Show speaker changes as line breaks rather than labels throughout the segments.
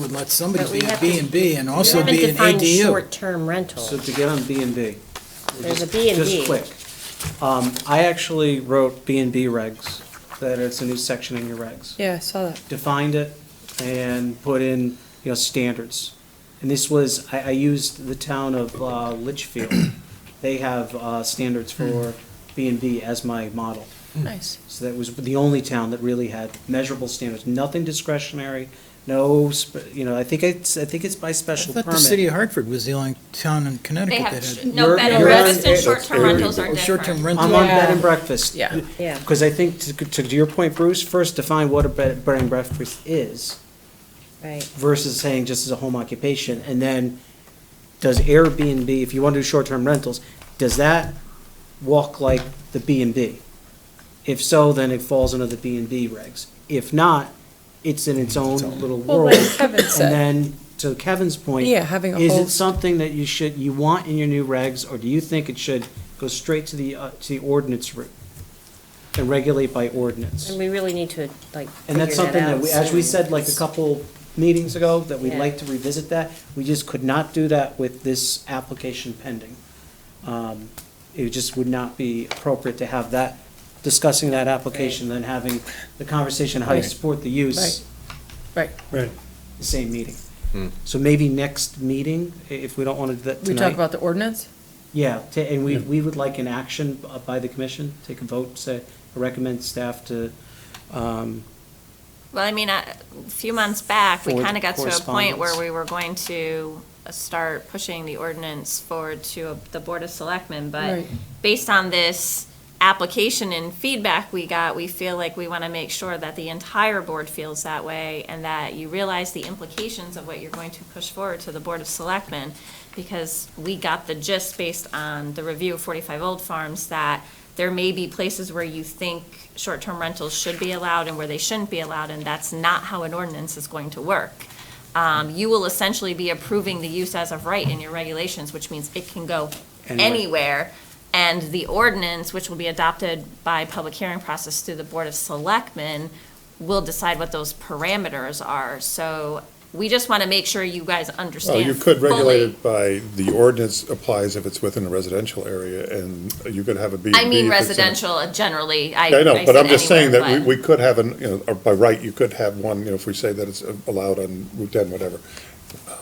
would let somebody
But we
be a
have to-
B and B and also
haven't
be an
defined
ADU.
Short-term
So
rental.
to get on B and B. we're
There's a
just-
B and B.
Just quick. Um, I actually wrote B and B regs, that it's a new section in your regs.
Yeah, I saw that.
Defined it and put in, you know, standards. And this was, I, I used the town of uh, Litchfield. They have, uh, standards for B and B as my model.
Nice.
So that was the only town that really had measurable standards, nothing discretionary, no, sp- you know, I think it's, I think it's by
I
special
thought
permit.
the city of Hartford was the only town in
They
Connecticut
have,
that
sh-
had.
no,
You're-
bed and
you're on-
breakfast and short-term rentals are
Oh,
different.
Short-term
I'm
rental,
on
Yeah.
bed and breakfast.
Yeah.
Yeah.
Because I think, to, to your point, Bruce, first define what a bed, bed and breakfast is
Right.
versus saying just as a home occupation, and then does Airbnb, if you want to do short-term rentals, does that walk like the B and B? If so, then it falls under the B and B regs. If not, it's in its own little
Well,
world.
like Kevin
And
said,
then, to Kevin's point.
Yeah, having a
Is
whole-
it something that you should, you want in your new regs, or do you think it should go straight to the, uh, to the ordinance route? And regulate by ordinance?
And we really need to, like,
And that's
figure
something that,
out
we, as we
soon.
said like a couple meetings ago, that we'd
Yeah.
like to revisit that. We just could not do that with this application pending. Um, It just would not be appropriate to have that, discussing that application, then having the conversation how you
Right.
support the use,
right,
Right.
the same meeting. So maybe next meeting, i- if we don't want to do that
we talk
tonight.
about the ordinance?
Yeah, ta- and we, we would like an action b- by the commission, take a vote, say, recommend staff to, um,
Well, I mean, I- a few months back, we
Forward
kind of got to a point where
correspondence.
we were going to uh, start pushing the ordinance forward to uh, the Board of Selectmen, but
Right.
based on this application and feedback we got, we feel like we want to make sure that the entire board feels that way and that you realize the implications of what you're going to push forward to the Board of Selectmen, because we got the gist based on the review of 45 Old Farms that there may be places where you think short-term rentals should be allowed and where they shouldn't be allowed, and that's not how an ordinance is going to work. Um, You will essentially be approving the use as of right in your regulations, which means it can go
Anywhere.
anywhere. And the ordinance, which will be adopted by public hearing process through the Board of Selectmen, will decide what those parameters are. So we just want to make sure you guys understand
Well, you could regulate
fully-
it by, the ordinance applies if it's within a residential area, and you could have a B and B.
I mean
if it's in a-
residential uh, generally, I.
Yeah, I know, but
said
I'm just saying
anywhere,
that
but-
we, we could have an, you know, or by right, you could have one, you know, if we say that it's uh, allowed on Route ten, whatever. um,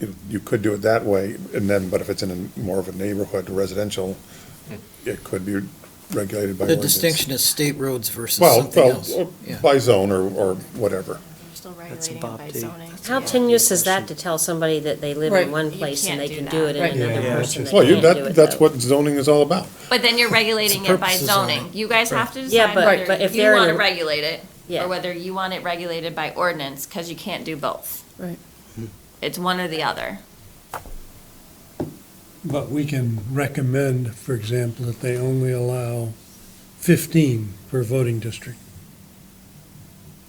you- You could do it that way, and then, but if it's in a more of a neighborhood residential, it could be regulated by
the
ordinance.
distinction is state roads versus
Well,
something else.
well,
Yeah.
by zone or, or whatever.
We're Still
That's a
regulating
Bob
it by
D.
zoning. so
How
yeah.
tenuous is that to tell somebody that they live
Right.
in one
You
place and they
can't
can do
do that.
it in
Right.
another
Yeah,
person that
Well, you,
can't do it,
that, that's
though?
what zoning is all about.
But then you're regulating
It's the
it by
purpose of zoning.
zoning. You guys have to
Yeah,
decide
but- but
whether
if
you
they're in
want
a-
to regulate it
Yeah.
or whether you want it regulated by ordinance, because you can't do both.
Right.
It's one or the other.
But we can recommend, for example, that they only allow 15 per voting district.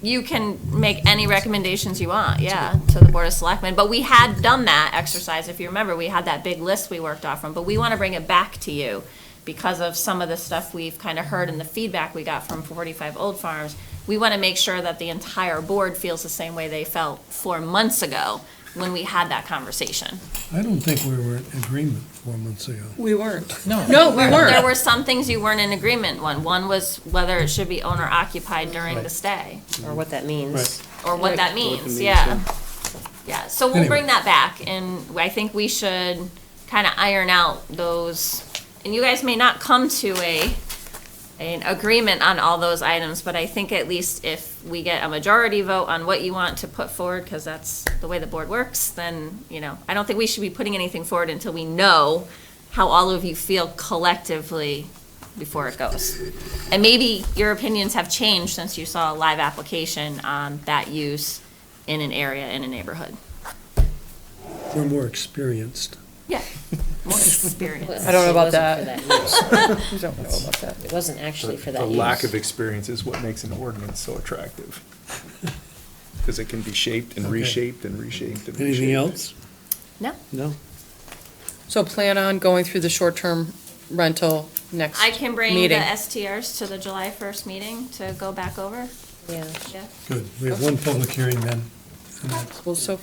You can make any recommendations you want, yeah, to the Board of Selectmen. But we had done that exercise, if you remember, we had that big list we worked off from. But we want to bring it back to you because of some of the stuff we've kind of heard and the feedback we got from 45 Old Farms. We want to make sure that the entire board feels the same way they felt four months ago when we had that conversation.
I don't think we were in agreement four months ago.
We weren't.
No.
No, we
There
weren't.
were some things you weren't in agreement on. One was whether it should be owner occupied during the stay,
Or what that means.
Right.
or what that means,
means,
yeah. Yeah, so we'll bring
Anyway.
that back, and I think we should kind of iron out those, and you guys may not come to a, an agreement on all those items, but I think at least if we get a majority vote on what you want to put forward, because that's the way the board works, then, you know, I don't think we should be putting anything forward until we know how all of you feel collectively before it goes. And maybe your opinions have changed since you saw a live application on that use in an area, in a neighborhood.
We're more experienced.
Yeah, more experience.
I don't know
It
about
wasn't
that.
for use.
We don't know about that.
It wasn't actually for
The
that
lack of
use.
experience is what makes an ordinance so attractive. Because it can be shaped and
Okay.
reshaped and reshaped and reshaped.
Anything else?
No,
No?
So plan on going through the short-term rental next
I can bring the
meeting.
STRs to the July 1st meeting to go back over,
Yeah.
yeah.
Good. We have one public hearing then. uh,
Well, so